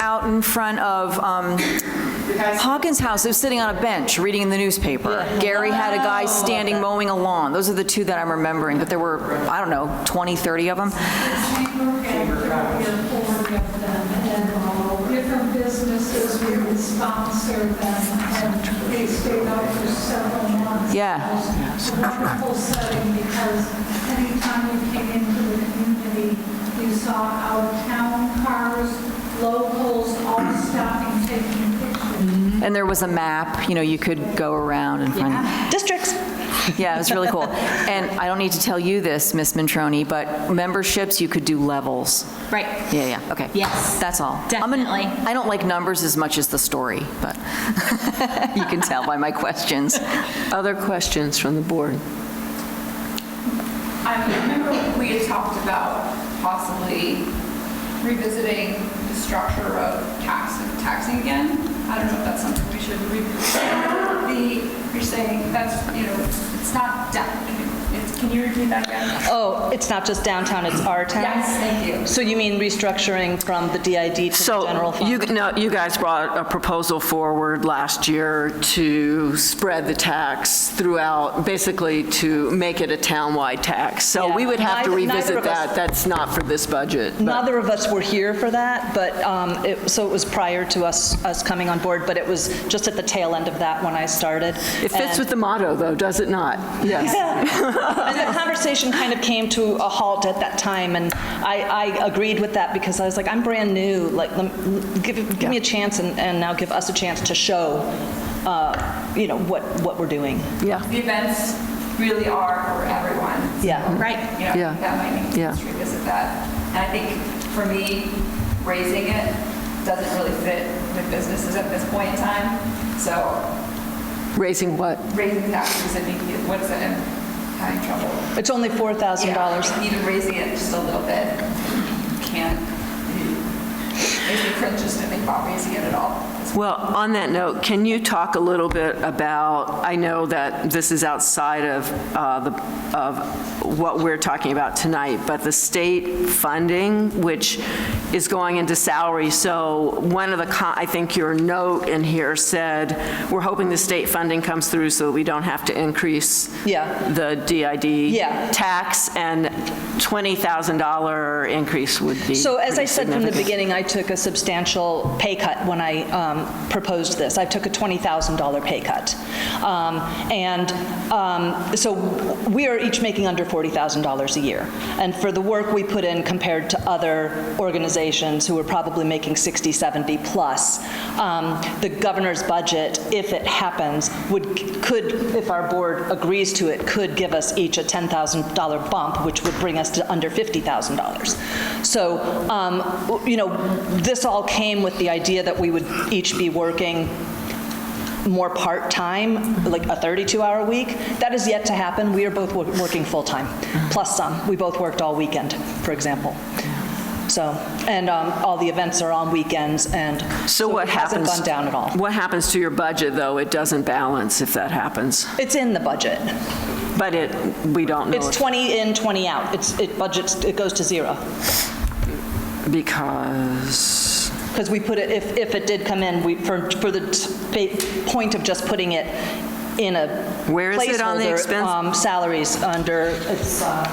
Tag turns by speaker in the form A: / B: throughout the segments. A: out in front of um, Hawkins House, they was sitting on a bench, reading the newspaper. Gary had a guy standing mowing a lawn. Those are the two that I'm remembering, but there were, I don't know, 20, 30 of them.
B: Different businesses, we would sponsor them, and they stayed out for several months.
A: Yeah.
B: It was a wonderful setting, because anytime you came into the community, you saw our town cars, locals, all stopping, taking pictures.
A: And there was a map, you know, you could go around and find.
C: Districts.
A: Yeah, it was really cool. And I don't need to tell you this, Miss Mantroni, but memberships, you could do levels.
C: Right.
A: Yeah, yeah, okay.
C: Yes,
A: That's all. I'm an-
C: definitely.
A: I don't like numbers as much as the story, but you can tell by my questions.
D: Other questions from the board?
E: I remember we had talked about possibly revisiting the structure of tax, taxing again. I don't know if that's something we should revisit. The, you're saying that's, you know, it's not, da- it's, can you repeat that again?
C: Oh, it's not just downtown, it's our town?
E: Yes, thank you.
C: So you mean restructuring from the DID to the general
D: So you,
C: fund?
D: no, you guys brought a proposal forward last year to spread the tax throughout, basically to make it a townwide tax. So we would have to
C: Yeah, neither- neither
D: revisit
C: of us-
D: that. That's not for this budget. but-
C: Neither of us were here for that, but, um, it, so it was prior to us, us coming on board, but it was just at the tail end of that when I started.
D: It
C: And-
D: fits with the motto, though, does it not? Yes.
C: And the conversation kind of came to a halt at that time, and I, I agreed with that because I was like, I'm brand new, like, lem- give, give me a chance and, and now give us a chance to show, uh, you know, what, what we're doing.
D: Yeah,
E: The events really are for everyone.
C: Yeah.
E: Right. You
D: Yeah.
E: know, that might need
D: Yeah.
E: to revisit that. And I think for me, raising it doesn't really fit with businesses at this point in time. So
D: raising what?
E: raising taxes, I think, it- what's it, I'm having trouble.
C: It's only $4,000.
E: Yeah, Even raising it just a little bit, can't, makes me cringe just to think about raising it at all.
D: Well, on that note, can you talk a little bit about, I know that this is outside of, uh, the of what we're talking about tonight, but the state funding, which is going into salary, so one of the, co- I think your note in here said, we're hoping the state funding comes through so we don't have to increase
C: Yeah.
D: the DID
C: Yeah.
D: tax, and $20,000 increase would be
C: So as I
D: pretty
C: said from the
D: significant.
C: beginning, I took a substantial pay cut when I um, proposed this. I took a $20,000 pay cut. Um, And um, so we are each making under $40,000 a year. And for the work we put in compared to other organizations who are probably making 60, 70 plus, um, the governor's budget, if it happens, would, could, if our board agrees to it, could give us each a $10,000 bump, which would bring us to under $50,000. So, um, w- you know, this all came with the idea that we would each be working more part-time, like a 32-hour week. That is yet to happen. We are both wo- working full-time, plus some. We both worked all weekend, for example. So, and um, all the events are on weekends, and
D: So what happens?
C: It hasn't gone down at all.
D: What happens to your budget, though? It doesn't balance if that happens.
C: It's in the budget.
D: But it, we don't know
C: It's 20 in, 20 out. It's, it budgets, it goes to zero.
D: because,
C: Because we put it, if, if it did come in, we, for, for the t- pa- point of just putting it in a
D: Where is it on the
C: placeholder,
D: expense-
C: um, Salaries under, it's, uh,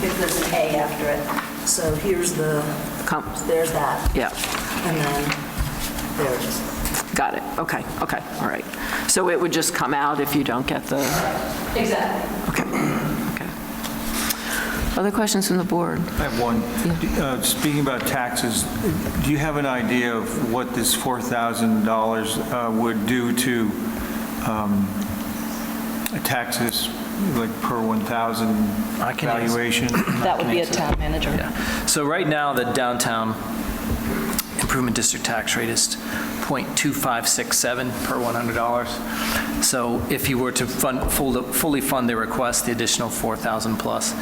F: If there's an A after it. So here's the,
D: Com-
F: there's that.
D: yeah,
F: And then there it is.
D: got it. Okay, okay, all right. So it would just come out if you don't get the... Exactly. Okay, okay. Other questions from the board?
G: I have one. Uh, Speaking about taxes, do you have an idea of what this $4,000 uh, would do to um, taxes, like per 1,000
H: I can answer.
G: valuation?
C: that would be a town manager.
H: So right now, the downtown improvement district tax rate is .2567 per $100. So if you were to fund, full- fully fund the request, the additional 4,000 plus,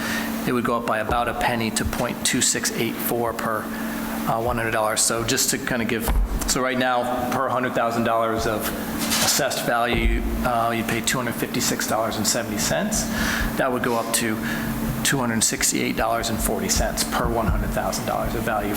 H: it would go up by about a penny to .2684 per uh, $100. So just to kind of give, so right now, per $100,000 of assessed value, uh, you'd pay $256.70. That would go up to $268.40 per $100,000 of value